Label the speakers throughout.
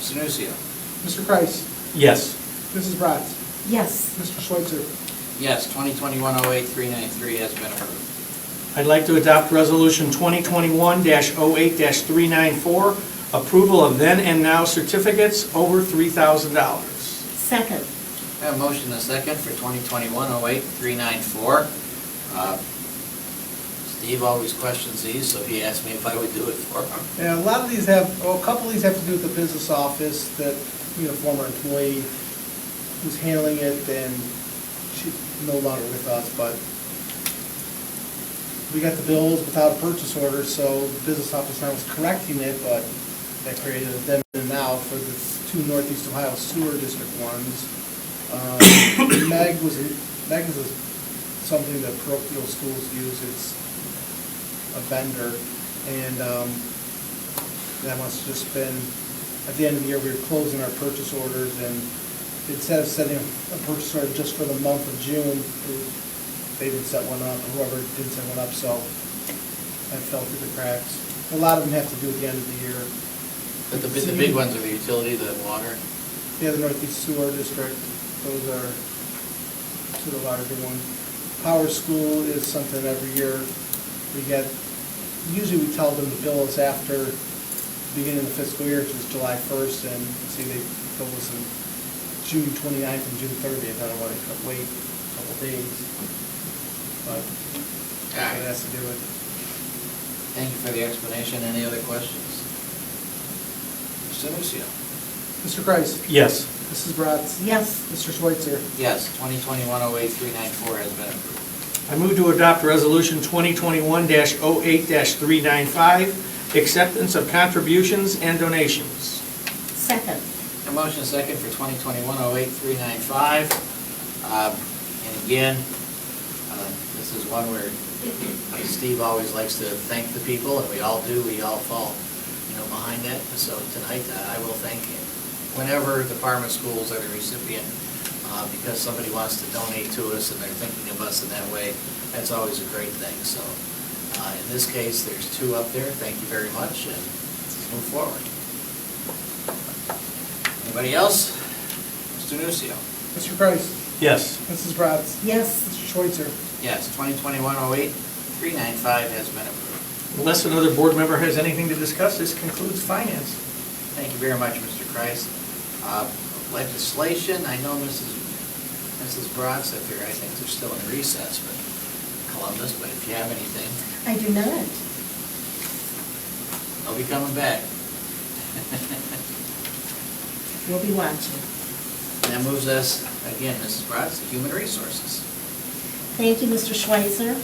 Speaker 1: Sanusia?
Speaker 2: Mr. Kreis.
Speaker 3: Yes.
Speaker 2: Mrs. Bratz.
Speaker 4: yes,
Speaker 2: Mr. Schweitzer.
Speaker 1: Yes, 2021-08393 has been approved.
Speaker 3: I'd like to adopt Resolution 2021-08-394, approval of then and now certificates over $3,000.
Speaker 4: second,
Speaker 1: I have a motion and a second for 2021-08-394. Uh, Steve always questions these, so he asked me if I would do it for him.
Speaker 2: Yeah, a lot of these have, well, a couple of these have to do with the business office that, you know, former employee was handling it and she's no longer with us, but we got the bills without a purchase order, so the business office now is correcting it, but that created a then and now for the two Northeast Ohio Sewer District ones. Um, Meg was, a- Meg is a- something that parochial schools use, it's a vendor, and um, that must have just been, at the end of the year, we were closing our purchase orders, and it says setting a purchase order just for the month of June, they didn't set one up, whoever did set one up, so that fell through the cracks. A lot of them have to do at the end of the year.
Speaker 1: But the big, the big ones are the utility, the water.
Speaker 2: Yeah, the Northeast Sewer District, those are two of the larger ones. Power School is something every year we get, usually we tell them to bill us after the beginning of the fiscal year, which is July 1st, and see, they bill us in June 29th and June 30th, I don't want to wait a couple days. But
Speaker 1: Alright.
Speaker 2: that has to do with,
Speaker 1: Thank you for the explanation. Any other questions? Sanusia?
Speaker 2: Mr. Kreis.
Speaker 3: Yes.
Speaker 2: Mrs. Bratz.
Speaker 4: yes,
Speaker 2: Mr. Schweitzer.
Speaker 1: Yes, 2021-08-394 has been approved.
Speaker 3: I move to adopt Resolution 2021-08-395, acceptance of contributions and donations.
Speaker 4: second,
Speaker 1: A motion and second for 2021-08-395. Um, And again, uh, this is one where Steve always likes to thank the people, and we all do, we all fall, you know, behind that. So tonight, uh, I will thank him. Whenever department schools are the recipient, uh, because somebody wants to donate to us and they're thinking of us in that way, that's always a great thing. So uh, in this case, there's two up there. Thank you very much, and let's move forward. Anybody else? Mr. Nucio.
Speaker 2: Mr. Kreis.
Speaker 3: Yes.
Speaker 2: Mrs. Bratz.
Speaker 4: yes,
Speaker 2: Mr. Schweitzer.
Speaker 1: Yes, 2021-08, 395 has been approved.
Speaker 3: Unless another board member has anything to discuss, this concludes finance.
Speaker 1: Thank you very much, Mr. Kreis. Uh, Legislation, I know Mrs. Mrs. Bratz up here, I think they're still in recess, but Columbus, but if you have anything,
Speaker 4: I do not.
Speaker 1: they'll be coming back.
Speaker 4: We'll be watching.
Speaker 1: And that moves us, again, Mrs. Bratz, to Human Resources.
Speaker 4: Thank you, Mr. Schweitzer.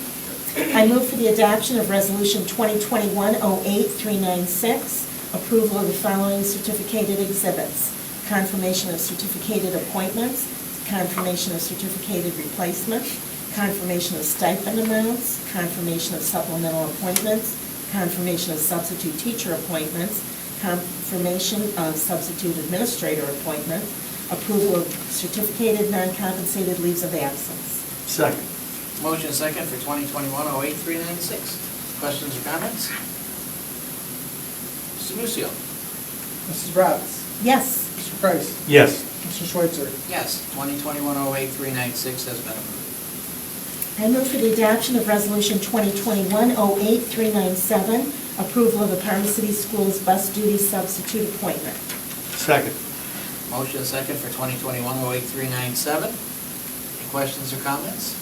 Speaker 4: I move for the adoption of Resolution 2021-08396, approval of the following certificated exhibits: confirmation of certificated appointments, confirmation of certificated replacement, confirmation of stipend amounts, confirmation of supplemental appointments, confirmation of substitute teacher appointments, confirmation of substitute administrator appointment, approval of certificated non-compensated leaves of absence.
Speaker 3: Second.
Speaker 1: Motion second for 2021-08, 396. Questions or comments? Mr. Nucio.
Speaker 2: Mrs. Bratz.
Speaker 4: Yes.
Speaker 2: Mr. Kreis.
Speaker 3: Yes.
Speaker 2: Mr. Schweitzer.
Speaker 1: Yes, 2021-08-396 has been approved.
Speaker 4: I move for the adoption of Resolution 2021-08397, approval of the Parma City Schools bus duty substitute appointment.
Speaker 3: Second.
Speaker 1: Motion second for 2021-08-397. Any questions or comments?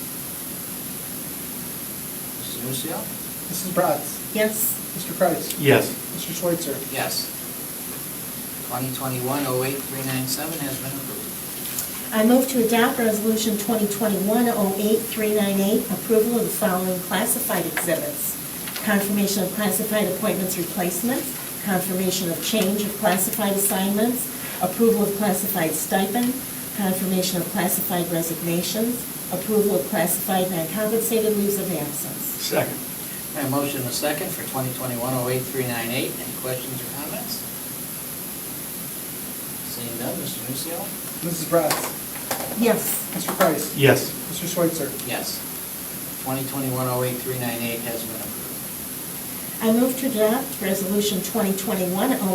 Speaker 1: Mr. Nucio?
Speaker 2: Mrs. Bratz.
Speaker 4: Yes.
Speaker 2: Mr. Kreis.
Speaker 3: Yes.
Speaker 2: Mr. Schweitzer.
Speaker 1: Yes. 2021-08-397 has been approved.
Speaker 4: I move to adopt Resolution 2021-08398, approval of the following classified exhibits: confirmation of classified appointments replacements, confirmation of change of classified assignments, approval of classified stipend, confirmation of classified resignations, approval of classified non-compensated leaves of absence.
Speaker 3: Second.
Speaker 1: And a motion a second for 2021-08-398. Any questions or comments? Seeing none, Mr. Nucio?
Speaker 2: Mrs. Bratz.
Speaker 4: Yes.
Speaker 2: Mr. Kreis.
Speaker 3: Yes.
Speaker 2: Mr. Schweitzer.
Speaker 1: Yes. 2021-08-398 has been approved.
Speaker 4: I move to adopt Resolution 2021